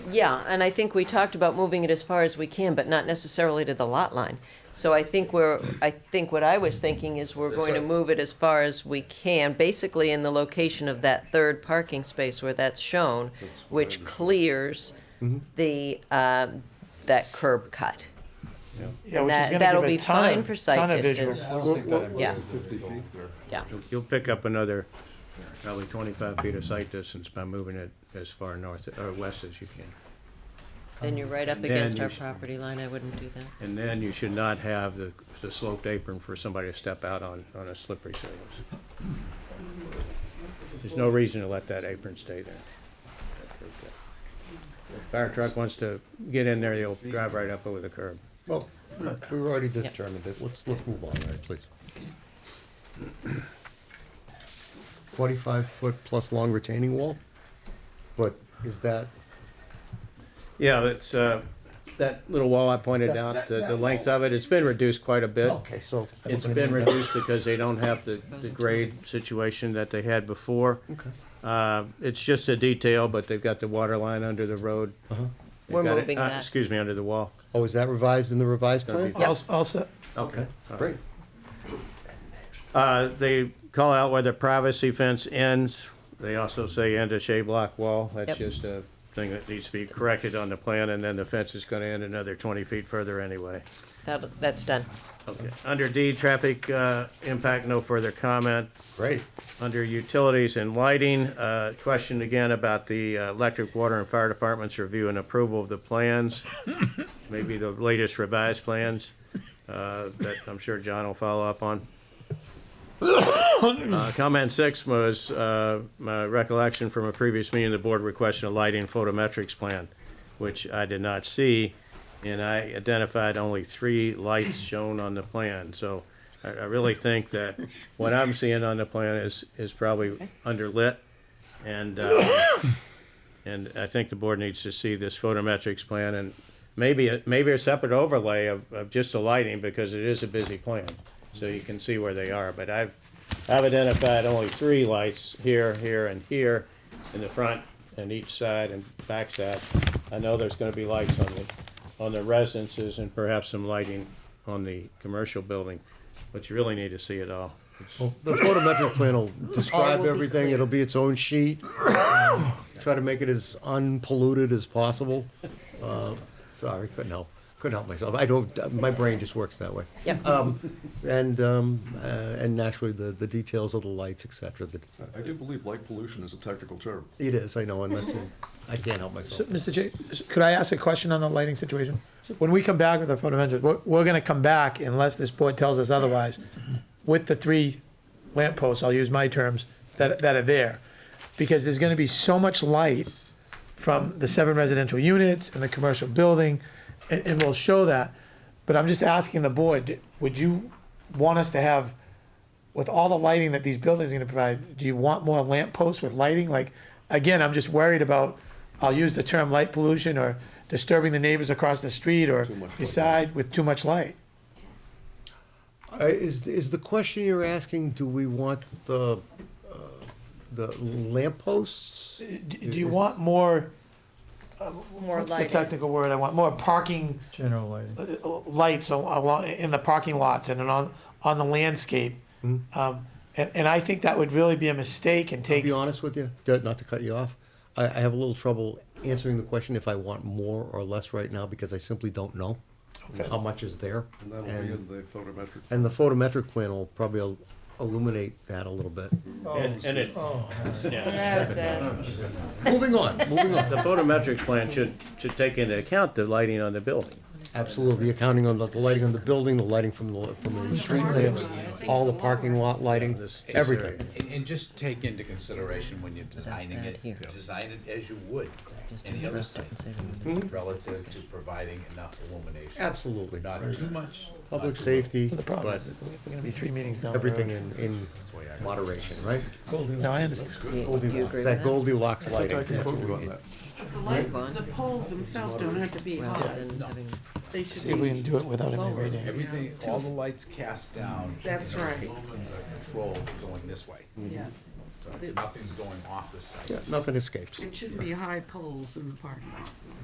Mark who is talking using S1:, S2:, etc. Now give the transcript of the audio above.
S1: Yeah, and I think we talked about moving it as far as we can, but not necessarily to the lot line. So I think we're, I think what I was thinking is we're
S2: This
S1: going to
S2: side.
S1: move it as far as we can, basically in the location of that third parking space where that's shown,
S2: That's what I
S1: which
S2: understand.
S1: clears
S3: Mm-hmm.
S1: the, um, that curb cut.
S3: Yeah, which
S1: That-
S3: is going to
S1: that'll
S3: give a
S1: be
S3: ton
S1: fine
S3: of,
S1: for site
S3: ton of
S1: distance.
S3: visuals.
S4: I don't think that
S1: Yeah.
S4: impacts the fifty feet there.
S1: Yeah,
S5: You'll pick up another, probably twenty-five feet of sight distance by moving it as far north or west as you can.
S1: then you're right up
S5: Then
S1: against
S5: you
S1: our
S5: should-
S1: property line, I wouldn't do that.
S5: And then you should not have the, the sloped apron for somebody to step out on, on a slippery surface. There's no reason to let that apron stay there. Fire truck wants to get in there, they'll drive right up over the curb.
S4: Well, we've already
S1: Yep.
S4: determined it, let's, let's move on, all right, please. Forty-five foot plus long retaining wall, but is that,
S5: Yeah, that's, uh, that little wall I pointed
S4: That-
S5: out,
S4: that-
S5: the, the
S4: that
S5: length of it, it's been reduced quite a bit.
S4: okay, so.
S5: It's been reduced because they don't have the, the grade situation that they had before.
S4: Okay.
S5: Uh, it's just a detail, but they've got the water line under the road.
S4: Uh-huh.
S5: They've
S1: We're
S5: got it-
S1: moving
S5: uh,
S1: that.
S5: Excuse me, under the wall.
S4: Oh, is that revised in the revised
S5: Gonna be-
S4: plan? Oh,
S5: Yeah.
S3: Also- Also,
S4: Okay, great.
S5: Uh, they call out where the privacy fence ends. They also say end a shade block wall. That's
S1: Yep.
S5: just a thing that needs to be corrected on the plan, and then the fence is gonna end another twenty feet further anyway.
S1: That, that's done.
S5: Okay. Under D, traffic, uh, impact, no further comment.
S4: Great,
S5: Under utilities and lighting, uh, question again about the uh, electric, water, and fire departments review and approval of the plans, maybe the latest revised plans uh, that I'm sure John will follow up on. Uh, Comment six was uh, my recollection from a previous meeting, the board requested a lighting photometrics plan, which I did not see, and I identified only three lights shown on the plan. So I I really think that what I'm seeing on the plan is, is probably underlit, and, uh, and I think the board needs to see this photometrics plan and maybe, a- maybe a separate overlay of, of just the lighting, because it is a busy plan, so you can see where they are. But I've, I've identified only three lights here, here, and here, in the front and each side and back side. I know there's gonna be lights on the, on the residences and perhaps some lighting on the commercial building, but you really need to see it all.
S4: well, the photometric plan will describe
S1: Oh. will be
S4: everything,
S1: clear.
S4: it'll be its own sheet. Try to make it as unpolluted as possible. Uh, Sorry, couldn't help, couldn't help myself, I don't, my brain just works that way.
S1: Yep.
S3: uh,
S4: And, um, uh, and naturally, the, the details of the lights, et cetera, that,
S2: I do believe light pollution is a technical term.
S4: it is, I know, and that's, I can't help myself.
S3: so, Mr. J, could I ask a question on the lighting situation? When we come back with the photometrics, we're, we're going to come back unless this board tells us otherwise, with the three lampposts, I'll use my terms, that, that are there. Because there's going to be so much light from the seven residential units and the commercial building, and, and we'll show that. But I'm just asking the board, would you want us to have, with all the lighting that these buildings are gonna provide, do you want more lamp posts with lighting? Like, again, I'm just worried about, I'll use the term light pollution or disturbing the neighbors across the street or
S2: much light.
S3: beside with too much light.
S4: Uh, Is, is the question you're asking, do we want the, uh, the lampposts?
S3: Do, do you want more, uh,
S1: More
S3: what's the technical word I want, more parking
S6: General lighting.
S3: uh, lights al- along, in the parking lots and on, on the landscape? Um, and, and I think that would really be a mistake and
S4: To
S3: take
S4: be honest with you, d- not to cut you off, I, I have a little trouble answering the question if I want more or less right now, because I simply don't know how much is there.
S2: And that'll be in
S4: And,
S2: the photometric.
S4: and the photometric plan will probably il- illuminate that a little bit.
S5: And and it, yeah.
S4: Moving on, moving on.
S5: The photometrics plan should, should take into account the lighting on the building.
S4: Absolutely, accounting on the the lighting on the building, the lighting from the, from the street lamps, all the parking lot lighting,
S5: This- this
S4: everything.
S7: And, and just take into consideration when you're designing
S1: around
S7: it,
S1: here.
S7: design it as you would any other site,
S8: Mm-hmm.
S7: relative to providing enough illumination.
S4: Absolutely.
S7: Not too much. not
S4: Public
S7: too
S4: safety,
S3: The problem
S4: but
S3: is, we're gonna be three meetings down. the road.
S4: everything in, in moderation, right?
S3: No, I understand.
S4: Goldilocks, that Goldilocks lighting, that's what we need.
S8: The lights, the poles themselves don't have to be hot. They
S3: See if
S8: should
S3: we
S8: be,
S3: can do it without him
S7: much.
S3: reading.
S7: Everything, all the lights cast down.
S8: That's
S7: you know,
S8: right.
S7: Lumens are controlled going this way,
S8: yeah. Mm.
S7: so nothing's going off the site.
S4: Yeah, Nothing escapes.
S8: It shouldn't be high poles in the parking lot.